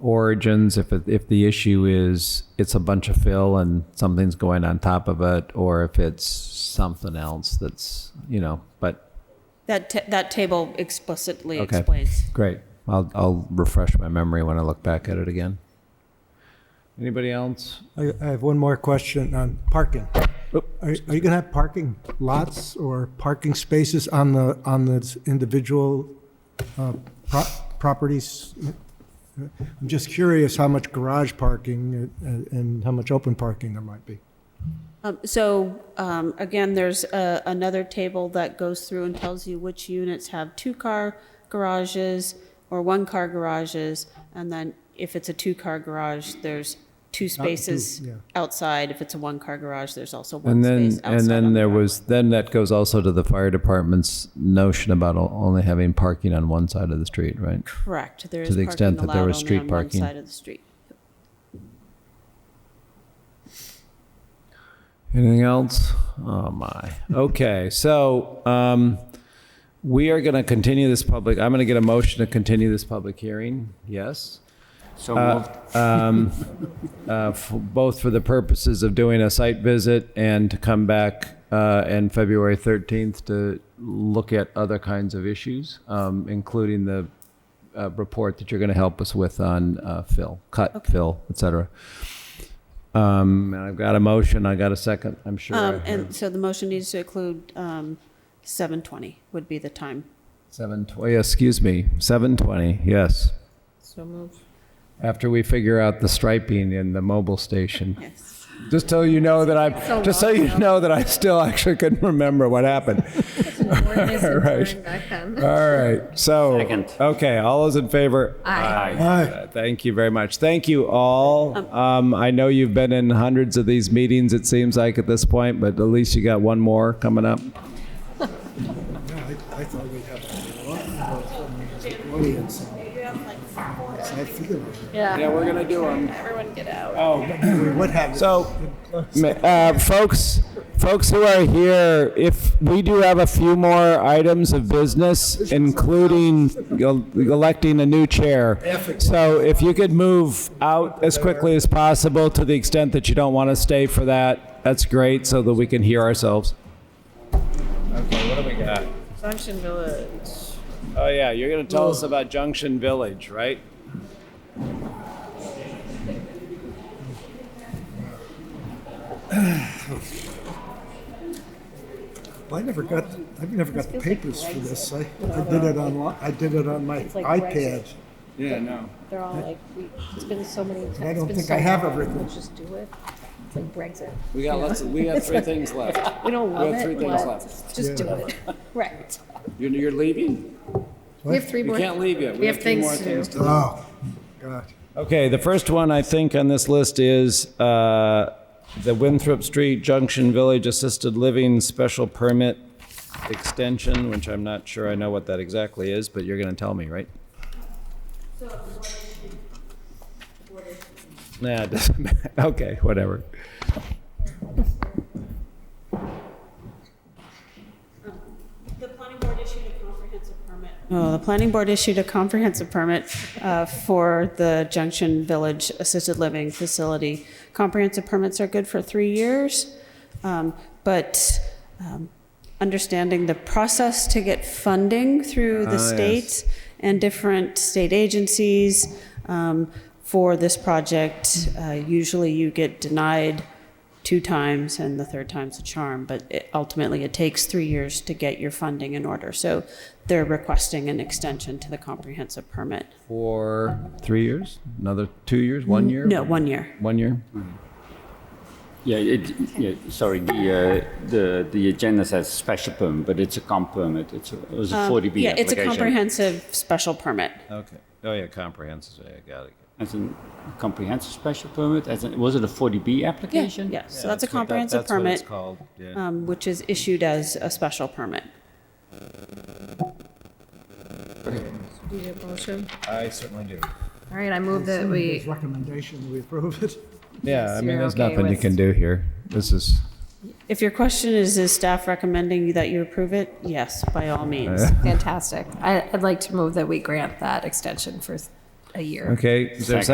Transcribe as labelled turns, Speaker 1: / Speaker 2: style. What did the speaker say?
Speaker 1: origins if it, if the issue is it's a bunch of fill and something's going on top of it or if it's something else that's you know but
Speaker 2: That, ta- that table explicitly
Speaker 1: Okay.
Speaker 2: explains.
Speaker 1: great I'll I'll refresh my memory when I look back at it again anybody else
Speaker 3: I, I have one more question on parking.
Speaker 1: Oop.
Speaker 3: Are, are you going to have parking lots or parking spaces on the, on the individual uh, pro- properties? I'm just curious how much garage parking and and how much open parking there might be.
Speaker 2: Um, So, um, again, there's a- another table that goes through and tells you which units have two-car garages or one-car garages, and then if it's a two-car garage, there's two spaces
Speaker 3: yeah.
Speaker 2: outside. If it's a one-car garage, there's also one
Speaker 1: and then
Speaker 2: space outside.
Speaker 1: and
Speaker 2: on
Speaker 1: then
Speaker 2: the
Speaker 1: there
Speaker 2: driveway.
Speaker 1: was then that goes also to the fire department's notion about o- only having parking on one side of the street right
Speaker 2: Correct. There is
Speaker 1: the extent
Speaker 2: parking
Speaker 1: that there was
Speaker 2: allowed only
Speaker 1: street
Speaker 2: on one
Speaker 1: parking.
Speaker 2: side of the street.
Speaker 1: Anything else? Oh my. Okay, so um, we are going to continue this public. I'm going to get a motion to continue this public hearing. Yes,
Speaker 4: So moved.
Speaker 1: uh, f- both for the purposes of doing a site visit and to come back uh, in February 13th to look at other kinds of issues, um, including the uh, report that you're going to help us with on uh, fill, cut, fill, et cetera. Um, and I've got a motion. I got a second. I'm sure. I
Speaker 2: Um,
Speaker 1: heard.
Speaker 2: And so the motion needs to include um, 7:20 would be the time.
Speaker 1: Seven twenty. Excuse me. Seven twenty. Yes.
Speaker 2: So move.
Speaker 1: After we figure out the striping in the mobile station,
Speaker 2: Yes.
Speaker 1: just so you know that I'm,
Speaker 5: So
Speaker 1: just so
Speaker 5: long
Speaker 1: you
Speaker 5: ago.
Speaker 1: know that I still actually couldn't remember what happened.
Speaker 5: Ordinance and
Speaker 1: Right.
Speaker 5: time back then.
Speaker 1: All right. So.
Speaker 4: Second.
Speaker 1: Okay. All those in favor?
Speaker 5: Aye.
Speaker 1: Uh, Thank you very much. Thank you all. Um, I know you've been in hundreds of these meetings. It seems like at this point, but at least you got one more coming up.
Speaker 3: I thought we'd have audience.
Speaker 1: Yeah, we're gonna do them.
Speaker 5: Everyone get out.
Speaker 3: We would have
Speaker 1: So, ma- uh, folks, folks who are here, if we do have a few more items of business, including el- electing a new chair. So if you could move out as quickly as possible to the extent that you don't want to stay for that, that's great so that we can hear ourselves. Okay, what do we got?
Speaker 5: Junction Village.
Speaker 1: Oh, yeah, you're going to tell us about Junction Village, right?
Speaker 3: I never got, I never got the papers for this. I, I did it on, I did it on my
Speaker 6: like rice.
Speaker 3: iPad.
Speaker 1: Yeah, no.
Speaker 6: They're all like, we, it's been so many times.
Speaker 3: I
Speaker 6: it's
Speaker 3: don't
Speaker 6: been
Speaker 3: think
Speaker 6: so
Speaker 3: I have
Speaker 6: long,
Speaker 3: everything.
Speaker 6: Let's just do it. It's like Brexit.
Speaker 1: We got lots, we got three things left.
Speaker 6: We don't
Speaker 1: have
Speaker 6: love
Speaker 1: three
Speaker 6: it,
Speaker 1: things
Speaker 6: but
Speaker 1: left.
Speaker 6: just do it. Right.
Speaker 1: You're, you're leaving?
Speaker 5: We have three more.
Speaker 1: leave yet.
Speaker 5: We have things to do.
Speaker 3: Oh, God.
Speaker 1: Okay, the first one I think on this list is uh, the Winthrop Street Junction Village Assisted Living Special Permit Extension, which I'm not sure I know what that exactly is, but you're going to tell me, right? Nah, it doesn't matter. Okay, whatever.
Speaker 2: The planning board issued a comprehensive permit. Oh, the planning board issued a comprehensive permit uh, for the Junction Village Assisted Living Facility. Comprehensive permits are good for three years, um, but um, understanding the process to get funding through
Speaker 1: Ah,
Speaker 2: the
Speaker 1: yes.
Speaker 2: state and different state agencies um, for this project, uh, usually you get denied two times and the third time's a charm, but it- ultimately it takes three years to get your funding in order. So they're requesting an extension to the comprehensive permit.
Speaker 1: For three years? Another two years? One year?
Speaker 2: Mm, No, one year.
Speaker 1: One year?
Speaker 4: Yeah, it, yeah, sorry, the, uh, the, the agenda says special permit, but it's a comp permit. It's a, it was a 40B
Speaker 2: Uh, Yeah, it's a
Speaker 4: application.
Speaker 2: comprehensive special permit.
Speaker 1: Okay. Oh, yeah, comprehensive. Yeah, got it.
Speaker 4: As in comprehensive special permit, as in, was it a 40B
Speaker 2: Yeah,
Speaker 4: application?
Speaker 2: yeah. So that's a comprehensive permit,
Speaker 1: called, yeah.
Speaker 2: um, which is issued as a special permit.
Speaker 5: Do you have a motion?
Speaker 2: Uh,
Speaker 1: I certainly do.
Speaker 5: All right, I move that
Speaker 3: His
Speaker 5: we,
Speaker 3: recommendation, we approve it.
Speaker 1: Yeah, I mean,
Speaker 5: you're
Speaker 1: there's
Speaker 5: okay
Speaker 1: nothing you
Speaker 5: with-
Speaker 1: can do here. This is,
Speaker 2: If your question is, is staff recommending that you approve it? Yes, by all means.
Speaker 5: fantastic. I, I'd like to move that we grant that extension for a year.
Speaker 1: okay, is there a
Speaker 4: Second.